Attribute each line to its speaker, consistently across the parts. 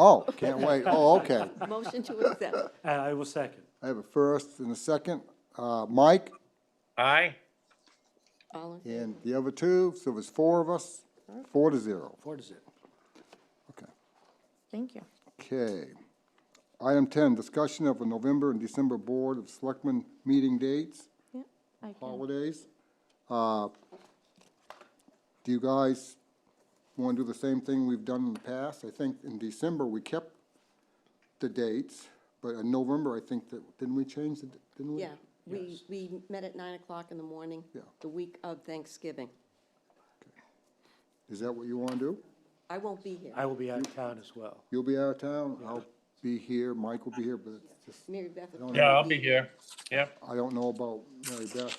Speaker 1: Oh, can't wait. Oh, okay.
Speaker 2: Motion to accept.
Speaker 3: And I will second.
Speaker 1: I have a first and a second. Uh, Mike
Speaker 4: Aye.
Speaker 2: All in-
Speaker 1: and the other two, so there's four of us, four to zero.
Speaker 3: Four to zero.
Speaker 1: Okay.
Speaker 2: Thank you.
Speaker 1: Okay. Item ten, discussion of a November and December Board of Selectmen meeting dates,
Speaker 2: Yeah, I can.
Speaker 1: holidays. Uh, Do you guys want to do the same thing we've done in the past? I think in December, we kept the dates, but in November, I think that, didn't we change it, didn't we?
Speaker 2: Yeah, we, we met at nine o'clock in the morning,
Speaker 1: Yeah.
Speaker 2: the week of Thanksgiving.
Speaker 1: Is that what you want to do?
Speaker 2: I won't be here.
Speaker 3: I will be out of town as well.
Speaker 1: You'll be out of town, I'll be here, Mike will be here, but it's just,
Speaker 2: Mary Beth.
Speaker 4: Yeah, I'll be here. Yep.
Speaker 1: I don't know about Mary Beth.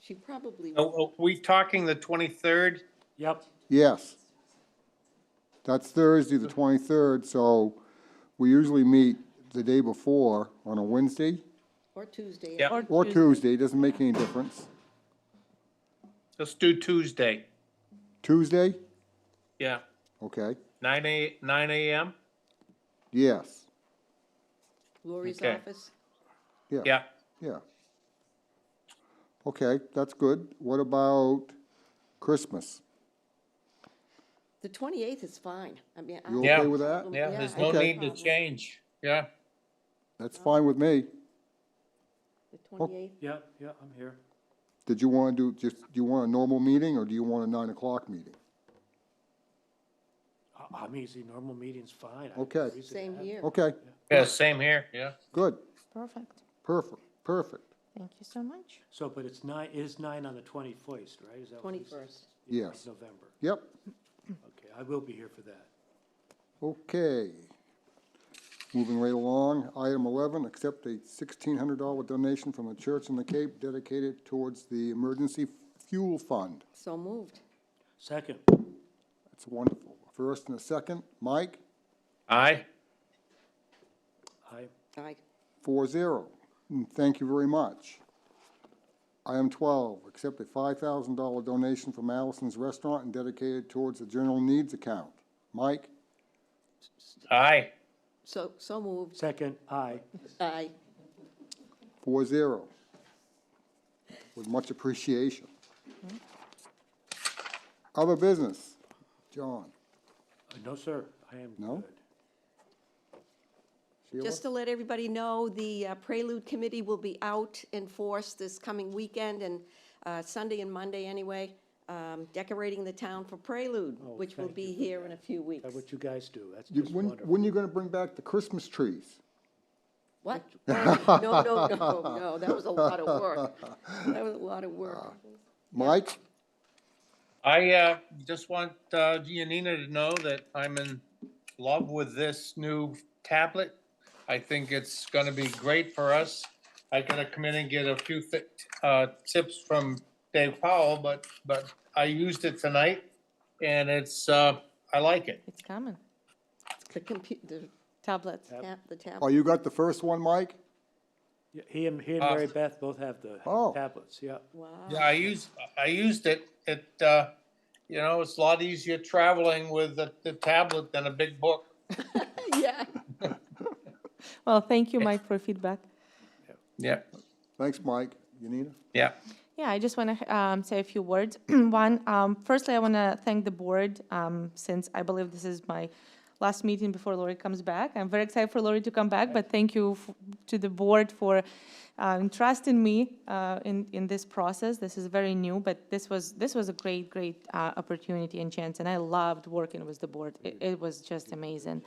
Speaker 2: She probably,
Speaker 4: Are are we talking the 23rd?
Speaker 3: Yep,
Speaker 1: Yes. That's Thursday, the twenty-third, so we usually meet the day before on a Wednesday
Speaker 2: or Tuesday.
Speaker 4: Yep.
Speaker 1: or Tuesday, doesn't make any difference.
Speaker 4: Let's do Tuesday.
Speaker 1: Tuesday,
Speaker 4: Yeah,
Speaker 1: okay,
Speaker 4: nine a, nine AM?
Speaker 1: yes,
Speaker 2: Lori's
Speaker 4: Okay.
Speaker 2: office.
Speaker 1: yeah.
Speaker 4: Yeah.
Speaker 1: Yeah. Okay, that's good. What about Christmas?
Speaker 2: The twenty-eighth is fine. I mean. I-
Speaker 1: You
Speaker 4: Yeah.
Speaker 1: okay with that?
Speaker 4: Yeah, there's
Speaker 2: I
Speaker 4: no
Speaker 2: have
Speaker 1: Okay.
Speaker 4: need to
Speaker 2: problem.
Speaker 4: change. Yeah.
Speaker 1: That's fine with me.
Speaker 2: The twenty-eighth,
Speaker 3: yep, yep, I'm here.
Speaker 1: Did you want to do, just, do you want a normal meeting or do you want a nine o'clock meeting?
Speaker 3: I- I'm easy, normal meeting's fine. I have no
Speaker 1: Okay.
Speaker 3: reason to
Speaker 2: same
Speaker 3: have-
Speaker 2: here.
Speaker 1: Okay,
Speaker 4: Yeah, same here. Yeah.
Speaker 1: good,
Speaker 5: Perfect.
Speaker 1: perfect, perfect.
Speaker 5: Thank you so much.
Speaker 3: So, but it's nine, it is nine on the twenty-first, right? Is that what you said?
Speaker 2: 21st.
Speaker 3: Yeah,
Speaker 1: Yes.
Speaker 3: November.
Speaker 1: Yep.
Speaker 3: Okay, I will be here for that.
Speaker 1: Okay. Moving right along, item eleven, accept a sixteen hundred dollar donation from the church in the Cape dedicated towards the emergency fuel fund.
Speaker 2: so moved.
Speaker 3: Second,
Speaker 1: That's wonderful. First and a second, Mike,
Speaker 4: Aye.
Speaker 3: I,
Speaker 2: I,
Speaker 1: four zero. And Thank you very much. Item twelve, accept a five thousand dollar donation from Allison's Restaurant and dedicated towards the general needs account. Mike,
Speaker 4: Aye.
Speaker 2: so, so moved.
Speaker 3: second, I,
Speaker 2: I,
Speaker 1: four zero. With much appreciation. Other business, John.
Speaker 3: Uh, no, sir, I am
Speaker 1: No?
Speaker 3: good.
Speaker 1: Sheila?
Speaker 2: Just to let everybody know, the uh, Prelude Committee will be out in force this coming weekend and uh, Sunday and Monday anyway, um, decorating the town for Prelude, which will
Speaker 3: thank
Speaker 2: be here in a few weeks.
Speaker 3: That's what you guys do, that's
Speaker 1: You-
Speaker 3: just
Speaker 1: When,
Speaker 3: wonderful.
Speaker 1: when you gonna bring back the Christmas trees?
Speaker 2: What? No, no, no, no, no, that was a lot of work. That was a lot of work.
Speaker 1: Mike,
Speaker 4: I, uh, just want, uh, Giannina to know that I'm in love with this new tablet. I think it's gonna be great for us. I gotta come in and get a few, thi- uh, tips from Dave Powell, but, but I used it tonight and it's, uh, I like it.
Speaker 5: It's coming.
Speaker 2: The compu- the
Speaker 5: Tablet.
Speaker 2: tab, the
Speaker 1: oh,
Speaker 2: tablet.
Speaker 1: you got the first one, Mike?
Speaker 3: Yeah, He and, he and
Speaker 4: Uh,
Speaker 3: Mary Beth both have the
Speaker 1: Oh.
Speaker 3: tablets, yeah.
Speaker 2: Wow.
Speaker 4: Yeah, I used, I used it, it, uh, you know, it's a lot easier traveling with the, the tablet than a big book.
Speaker 2: Yeah.
Speaker 5: Well, thank you, Mike, for feedback.
Speaker 4: Yeah,
Speaker 1: Thanks, Mike. Yanina?
Speaker 4: yeah.
Speaker 5: Yeah, I just want to um, say a few words. One, um, firstly, I want to thank the board um, since I believe this is my last meeting before Lori comes back. I'm very excited for Lori to come back, but thank you f- to the board for uh, entrusting me uh, in in this process. This is very new, but this was this was a great great uh, opportunity and chance, and I loved working with the board. It, it was just amazing.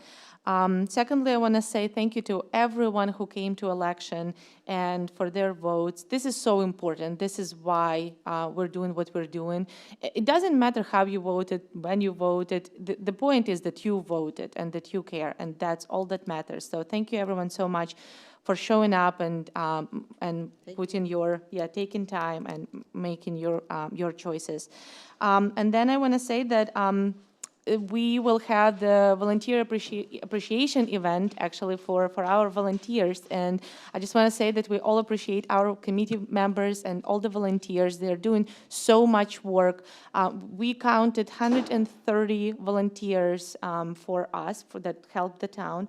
Speaker 5: Um, secondly, I want to say thank you to everyone who came to election and for their votes. This is so important. This is why uh, we're doing what we're doing. I- It doesn't matter how you voted, when you voted. The, the point is that you voted and that you care, and that's all that matters. So thank you, everyone, so much for showing up and um, and putting your yeah taking time and m- making your um, your choices. Um, and then I want to say that. Um, uh, we will have the volunteer appreci- appreciation event actually for, for our volunteers. And I just want to say that we all appreciate our committee members and all the volunteers. They're doing so much work. Uh, we counted 130 volunteers um, for us for that help the town.